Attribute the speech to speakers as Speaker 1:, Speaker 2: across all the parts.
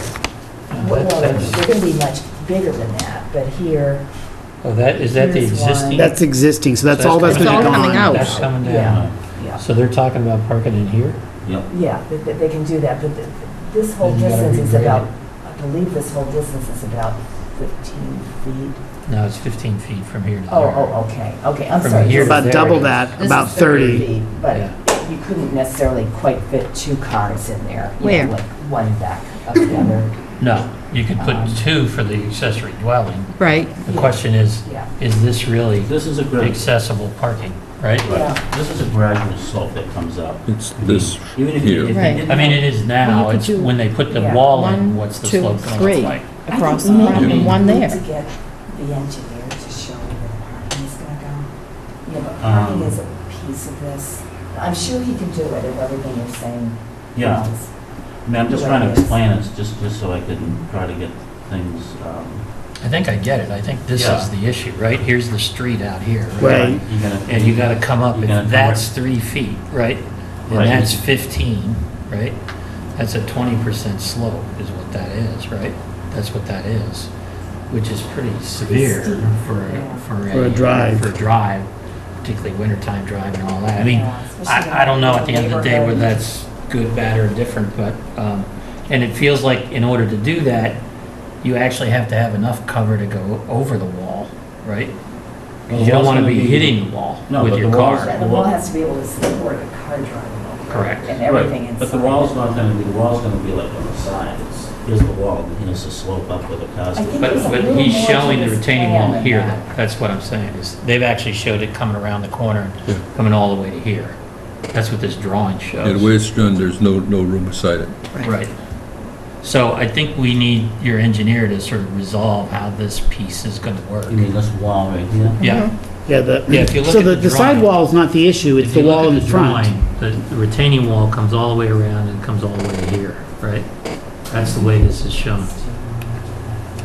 Speaker 1: here.
Speaker 2: What-
Speaker 1: Well, they're going to be much bigger than that, but here,
Speaker 2: Oh, that, is that the
Speaker 1: Here's one.
Speaker 2: existing?
Speaker 3: That's existing, so that's
Speaker 2: So
Speaker 3: all that's
Speaker 4: It's
Speaker 3: going
Speaker 4: all
Speaker 3: to be
Speaker 4: coming
Speaker 3: gone.
Speaker 4: out.
Speaker 2: That's coming
Speaker 1: yeah,
Speaker 2: down.
Speaker 1: yeah,
Speaker 2: So they're talking about parking in here?
Speaker 5: Yep.
Speaker 1: yeah, they- they they can do that, but th- this whole
Speaker 2: Then you gotta
Speaker 1: distance is
Speaker 2: regrade
Speaker 1: about,
Speaker 2: it.
Speaker 1: I believe this whole distance is about 15 feet.
Speaker 2: No, it's 15 feet from here to there.
Speaker 1: Oh, oh, okay, okay, I'm
Speaker 2: From
Speaker 1: sorry. this
Speaker 2: here to
Speaker 1: is
Speaker 3: About
Speaker 2: There it
Speaker 3: double
Speaker 2: is.
Speaker 3: that,
Speaker 4: This
Speaker 3: about
Speaker 4: is
Speaker 3: 30.
Speaker 1: feet,
Speaker 2: Yeah.
Speaker 1: But you couldn't necessarily quite fit two cars in there. you know,
Speaker 4: Where?
Speaker 1: Like one back of the other,
Speaker 2: No, you could put
Speaker 1: Um,
Speaker 2: two for the accessory dwelling.
Speaker 4: Right.
Speaker 2: The question is,
Speaker 1: yeah.
Speaker 2: is this really
Speaker 5: This is a gradual,
Speaker 2: accessible parking, right?
Speaker 1: Yeah.
Speaker 5: this is a gradual slope that comes up.
Speaker 6: It's this
Speaker 5: Even if you- if you
Speaker 6: here.
Speaker 4: Right.
Speaker 5: didn't
Speaker 2: I mean, it is
Speaker 4: Well,
Speaker 2: now,
Speaker 4: you could
Speaker 2: it's
Speaker 4: do
Speaker 2: when they put the
Speaker 1: Yeah.
Speaker 2: wall in,
Speaker 4: One,
Speaker 2: what's the
Speaker 4: two,
Speaker 2: slope going to
Speaker 4: three,
Speaker 2: look like?
Speaker 4: across the
Speaker 1: I think
Speaker 4: front
Speaker 1: maybe
Speaker 4: and one
Speaker 1: we need
Speaker 4: there.
Speaker 1: to get the engineer to show where the parking is gonna go. You know, parking
Speaker 5: Um,
Speaker 1: is a piece of this. I'm sure he can do it if everything you're saying.
Speaker 5: Yeah,
Speaker 1: is-
Speaker 5: I mean, I'm just trying to explain it, just, just so I can try to get things, um,
Speaker 2: I think I get it. I think this
Speaker 5: Yeah.
Speaker 2: is the issue, right? Here's the street out here,
Speaker 3: Right.
Speaker 2: right?
Speaker 5: you gotta-
Speaker 2: And you gotta come up,
Speaker 5: You gotta come
Speaker 2: if that's three feet, right? And
Speaker 5: Right.
Speaker 2: that's 15, right? That's a 20% slope is what that is, right? That's what that is, which is pretty severe
Speaker 1: steep,
Speaker 2: for,
Speaker 1: yeah.
Speaker 2: for a.
Speaker 3: For a drive.
Speaker 2: For a drive, particularly wintertime drive and all that. I mean,
Speaker 1: Yeah, uh, especially
Speaker 2: I, I don't know at the
Speaker 1: in a
Speaker 2: end of the day whether
Speaker 1: neighborhood.
Speaker 2: that's good, bad, or different, but, um, and it feels like in order to do that, you actually have to have enough cover to go over the wall, right?
Speaker 5: Well,
Speaker 2: You
Speaker 5: the
Speaker 2: don't
Speaker 5: wall's
Speaker 2: want to
Speaker 5: gonna
Speaker 2: be
Speaker 5: be-
Speaker 2: hitting the wall
Speaker 5: No,
Speaker 2: with
Speaker 5: but
Speaker 2: your
Speaker 5: the wall's-
Speaker 2: car.
Speaker 1: Yeah, the wall has to be able to support a car driving over. it
Speaker 2: Correct.
Speaker 1: And everything
Speaker 5: Right,
Speaker 1: inside.
Speaker 5: But the wall's not gonna be, the wall's gonna be like on the side, it's, here's the wall, and here's the slope up with the cars.
Speaker 1: I think
Speaker 2: But,
Speaker 1: there's a
Speaker 2: but
Speaker 1: little
Speaker 2: he's
Speaker 1: more to
Speaker 2: showing the
Speaker 1: this
Speaker 2: retaining
Speaker 1: plan
Speaker 2: wall
Speaker 1: than
Speaker 2: here,
Speaker 1: that.
Speaker 2: though. That's what I'm saying, is they've actually showed it coming around the corner,
Speaker 6: Yeah.
Speaker 2: coming all the way to here. That's what this drawing shows.
Speaker 6: And where it's done, there's no, no room beside it.
Speaker 2: Right. So I think we need your engineer to sort of resolve how this piece is going to work.
Speaker 5: You mean this wall right here?
Speaker 2: Yeah.
Speaker 3: Yeah, the,
Speaker 2: Yeah, if you look
Speaker 3: so
Speaker 2: at
Speaker 3: the,
Speaker 2: the
Speaker 3: the
Speaker 2: drawing-
Speaker 3: sidewall's not the issue, it's
Speaker 2: If
Speaker 3: the
Speaker 2: you look
Speaker 3: wall
Speaker 2: at
Speaker 3: in the front.
Speaker 2: drawing, The the retaining wall comes all the way around and comes all the way to here, right? That's the way this is shown.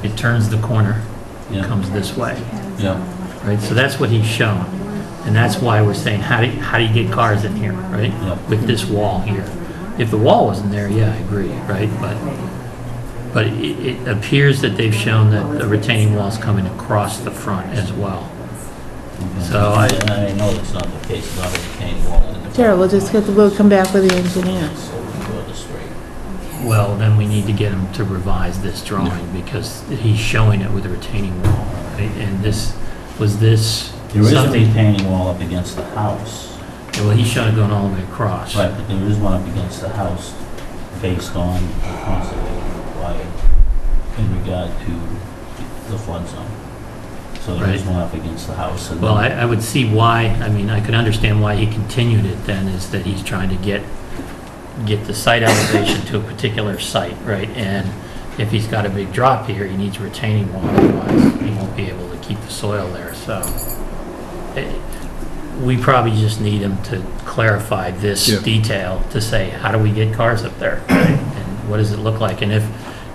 Speaker 2: It turns the corner,
Speaker 5: Yeah.
Speaker 2: comes this way.
Speaker 5: Yeah.
Speaker 2: right? So that's what he's shown, and that's why we're saying, how do, how do you get cars in here, right?
Speaker 5: Yep.
Speaker 2: With this wall here. If the wall wasn't there, yeah, I agree, right? But, but it, it appears that they've shown that the retaining wall's coming across the front as well. So I-
Speaker 5: And I know that's not the case, it's not a retaining wall in the.
Speaker 7: Sure, we'll just get, the we'll come back with the engineer.
Speaker 5: So we go the straight.
Speaker 2: Well, then we need to get him to revise this drawing, because he's showing it with a retaining wall, right? And this, was this
Speaker 5: There is a
Speaker 2: something,
Speaker 5: retaining wall up against the house.
Speaker 2: well, he's showing it going all the way across.
Speaker 5: Right, but there is one up against the house based on the conservation required in regard to the flood zone. So there is
Speaker 2: Right.
Speaker 5: one up against the house and.
Speaker 2: Well, I, I would see why, I mean, I could understand why he continued it then, is that he's trying to get, get the site elevation to a particular site, right? And if he's got a big drop here, he needs retaining wall, otherwise he won't be able to keep the soil there, so. eh, We probably just need him to clarify this
Speaker 6: Yeah.
Speaker 2: detail, to say, how do we get cars up there? And what does it look like? And if,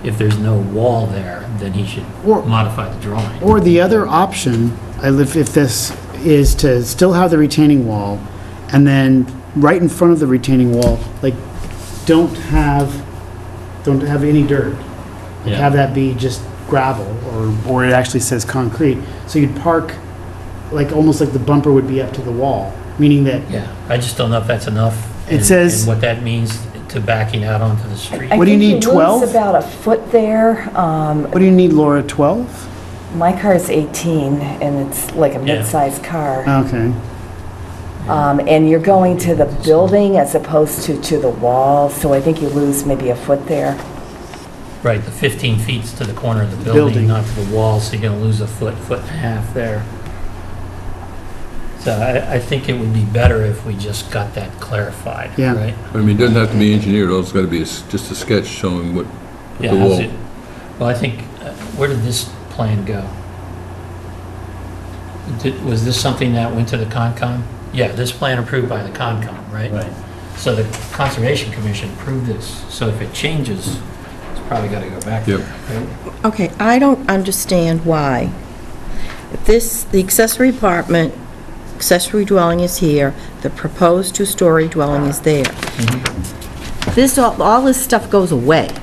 Speaker 2: if there's no wall there, then he should
Speaker 3: Or-
Speaker 2: modify the drawing.
Speaker 3: Or the other option, I live, if this, is to still have the retaining wall, and then right in front of the retaining wall, like, don't have, don't have any dirt. Like,
Speaker 5: Yeah.
Speaker 3: Have that be just gravel, or, or it actually says concrete. So you'd park, like, almost like the bumper would be up to the wall, meaning that
Speaker 2: Yeah, I just don't know if that's enough.
Speaker 3: It
Speaker 2: and-
Speaker 3: says-
Speaker 2: And what that means to backing out onto the street.
Speaker 1: I
Speaker 3: What do you
Speaker 1: think
Speaker 3: need,
Speaker 1: he moves
Speaker 3: 12?
Speaker 1: about a foot there. Um,
Speaker 3: What do you need, Laura, 12?
Speaker 1: My car is 18, and it's like a
Speaker 2: Yeah.
Speaker 1: mid-sized
Speaker 3: Uh,
Speaker 1: car.
Speaker 3: Okay.
Speaker 1: Um, And you're going to the building as opposed to to the wall, so I think you lose maybe a foot there.
Speaker 2: Right, the 15 feet's to the corner of the building,
Speaker 3: Building.
Speaker 2: not to the wall, so you're going to lose a foot, foot and a half there. So I, I think it would be better if we just got that clarified,
Speaker 3: Yeah.
Speaker 2: right?
Speaker 6: I mean, it doesn't have to be engineered, all it's got to be is just a sketch showing what,
Speaker 2: Yeah,
Speaker 6: the
Speaker 2: how's
Speaker 6: wall.
Speaker 2: it- Well, I think, uh, where did this plan go? Did- Was this something that went to the Concom? Yeah, this plan approved by the Concom, right?
Speaker 5: Right.
Speaker 2: So the Conservation Commission approved this, so if it changes, it's probably got to go back there.
Speaker 6: Yep.
Speaker 2: right?
Speaker 4: Okay, I don't understand why. If This, the accessory apartment, accessory dwelling is here, the proposed two-story dwelling is there. This, all all this stuff goes away.